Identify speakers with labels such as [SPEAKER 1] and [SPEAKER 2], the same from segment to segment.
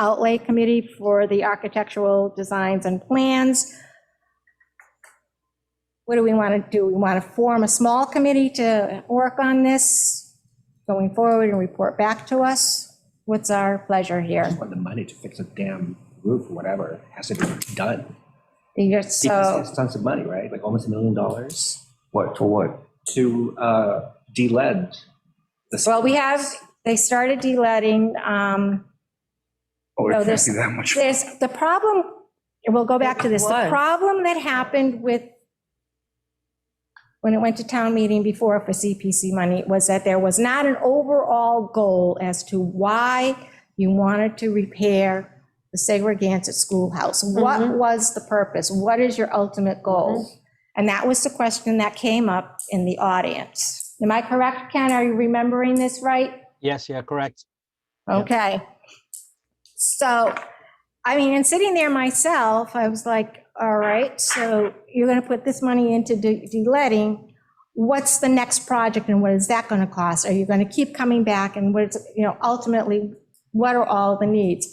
[SPEAKER 1] Outlay Committee for the architectural designs and plans. What do we want to do? We want to form a small committee to work on this going forward and report back to us? What's our pleasure here?
[SPEAKER 2] want the money to fix a damn roof or whatever, has to be done.
[SPEAKER 1] You're
[SPEAKER 2] Because
[SPEAKER 1] so,
[SPEAKER 2] it's tons of money, right? Like almost a million dollars
[SPEAKER 3] What, for what?
[SPEAKER 2] to uh, de-lead. the
[SPEAKER 1] well, we have,
[SPEAKER 2] sidewalks.
[SPEAKER 1] they started de-letting, um,
[SPEAKER 3] Oh,
[SPEAKER 1] No,
[SPEAKER 3] it
[SPEAKER 1] there's-
[SPEAKER 3] can't be that much.
[SPEAKER 1] There's, the problem, we'll go back to this, the
[SPEAKER 4] What?
[SPEAKER 1] problem that happened with, when it went to town meeting before for CPC money, was that there was not an overall goal as to why you wanted to repair the segregated schoolhouse. What
[SPEAKER 4] Mhm.
[SPEAKER 1] was the purpose? What is your ultimate goal? And that was the question that came up in the audience. Am I correct, Ken? Are you remembering this right?
[SPEAKER 5] Yes, yeah, correct. Yep.
[SPEAKER 1] Okay. So, I mean, and sitting there myself, I was like, all right, so you're going to put this money into de- de-letting. What's the next project and what is that going to cost? Are you going to keep coming back and what is, you know, ultimately, what are all the needs?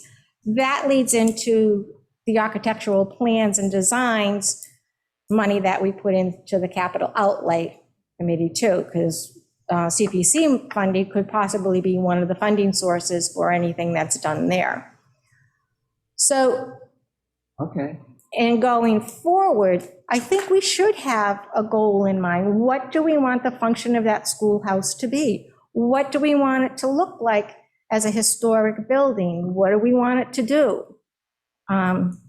[SPEAKER 1] That leads into the architectural plans and designs, money that we put into the capital outlay committee too, because uh, CPC funding could possibly be one of the funding sources for anything that's done there. So,
[SPEAKER 2] Okay.
[SPEAKER 1] and going forward, I think we should have a goal in mind. What do we want the function of that schoolhouse to be? What do we want it to look like as a historic building? What do we want it to do? Um,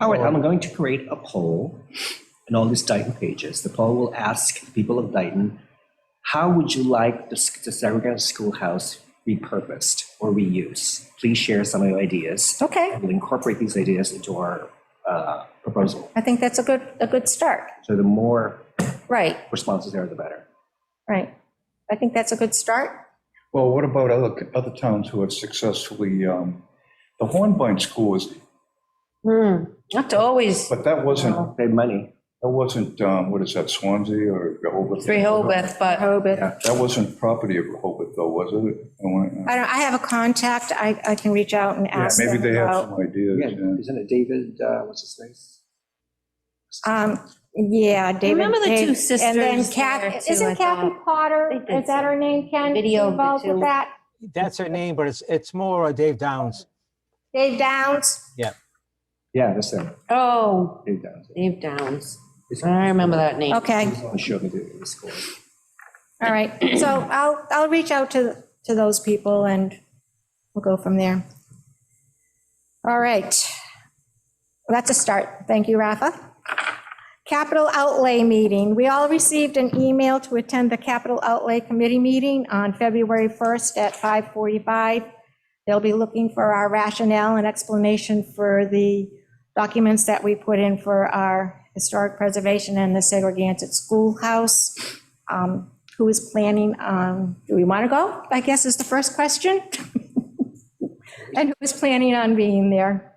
[SPEAKER 2] All right, I'm going to create a poll in all these Dayton pages. The poll will ask the people of Dayton, how would you like the s- the segregated schoolhouse repurposed or reused? Please share some of your ideas.
[SPEAKER 1] Okay,
[SPEAKER 2] And We'll incorporate these ideas into our uh, proposal.
[SPEAKER 1] I think that's a good, a good start.
[SPEAKER 2] So the more
[SPEAKER 1] Right,
[SPEAKER 2] responses there, the better.
[SPEAKER 1] right. I think that's a good start.
[SPEAKER 3] Well, what about other, other towns who have successfully, um, the Hornbein School is,
[SPEAKER 4] Hmm, that's always
[SPEAKER 3] but that wasn't,
[SPEAKER 1] Oh.
[SPEAKER 2] Save money.
[SPEAKER 3] that wasn't, um, what is that, Swansea or Rehoboth?
[SPEAKER 4] Rehoboth, but
[SPEAKER 1] Rehoboth.
[SPEAKER 2] Yeah.
[SPEAKER 3] That wasn't property of Rehoboth though, was it? I wanna- uh,
[SPEAKER 1] I don't, I have a contact, I, I can reach out and
[SPEAKER 3] Yeah,
[SPEAKER 1] ask
[SPEAKER 3] maybe
[SPEAKER 1] them
[SPEAKER 3] they have
[SPEAKER 1] about.
[SPEAKER 3] some ideas.
[SPEAKER 2] Yeah,
[SPEAKER 3] yeah.
[SPEAKER 2] isn't it David, uh, what's his name?
[SPEAKER 1] Um, yeah, David.
[SPEAKER 4] Remember the two
[SPEAKER 1] Dave- And then
[SPEAKER 4] sisters there,
[SPEAKER 1] Kathy,
[SPEAKER 4] too, I
[SPEAKER 1] isn't Kathy
[SPEAKER 4] thought.
[SPEAKER 1] Potter,
[SPEAKER 4] They did
[SPEAKER 1] is that her name, Ken?
[SPEAKER 4] Video of the
[SPEAKER 1] Involved with
[SPEAKER 4] two.
[SPEAKER 1] that?
[SPEAKER 5] That's her name, but it's, it's more uh, Dave Downs.
[SPEAKER 1] Dave Downs?
[SPEAKER 2] Yeah, that's him.
[SPEAKER 4] oh,
[SPEAKER 2] Dave Downs.
[SPEAKER 4] Dave Downs. I remember that name.
[SPEAKER 1] Okay,
[SPEAKER 2] He's the one who showed me the the score.
[SPEAKER 1] all right. So I'll, I'll reach out to, to those people and we'll go from there. All right. Well, That's a start. Thank you, Rafa. Capital Outlay Meeting. We all received an email to attend the Capital Outlay Committee meeting on February 1st at 5:45. They'll be looking for our rationale and explanation for the documents that we put in for our historic preservation and the segregated schoolhouse. Um, Who is planning, on? do we want to go, I guess is the first question? And who is planning on being there?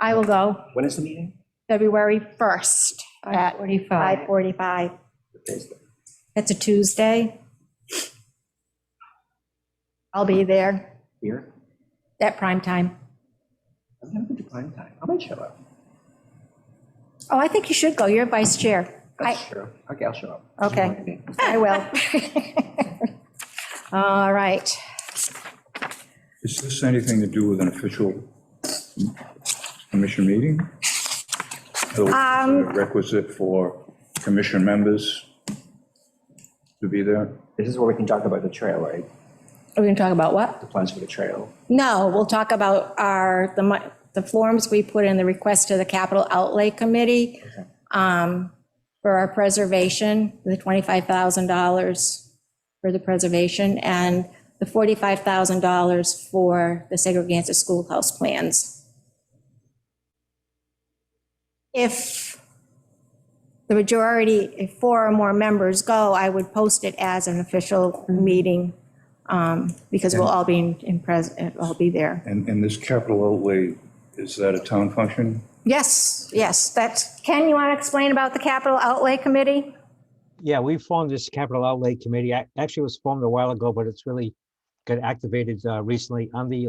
[SPEAKER 1] I will go.
[SPEAKER 2] When is the meeting?
[SPEAKER 1] February 1st at
[SPEAKER 4] 45.
[SPEAKER 1] 5:45.
[SPEAKER 2] Thursday.
[SPEAKER 1] That's a Tuesday. I'll be there
[SPEAKER 2] Here?
[SPEAKER 1] at prime time.
[SPEAKER 2] I'm gonna go to prime time. I might show up.
[SPEAKER 1] Oh, I think you should go. You're vice chair. I,
[SPEAKER 2] That's true. Okay, I'll show up.
[SPEAKER 1] Okay.
[SPEAKER 2] Join me.
[SPEAKER 1] I will. All right.
[SPEAKER 3] Is this anything to do with an official commission meeting? So is
[SPEAKER 1] Um.
[SPEAKER 3] it Requisite for commission members to be there?
[SPEAKER 2] This is where we can talk about the trail, right?
[SPEAKER 1] Are we going to talk about what?
[SPEAKER 2] The plans for the trail.
[SPEAKER 1] No, we'll talk about our, the, mo- the forms we put in the request to the Capital Outlay Committee
[SPEAKER 2] Okay.
[SPEAKER 1] um, for our preservation, the $25,000 for the preservation and the $45,000 for the segregated schoolhouse plans. If the majority, if four or more members go, I would post it as an official meeting um, because we'll all be in- in, pres- all be there.
[SPEAKER 3] And, and this capital outlay, is that a town function?
[SPEAKER 1] Yes, yes, that's, Ken, you want to explain about the capital outlay committee?
[SPEAKER 5] Yeah, we formed this capital outlay committee. Ac- Actually, it was formed a while ago, but it's really got activated uh, recently. I'm the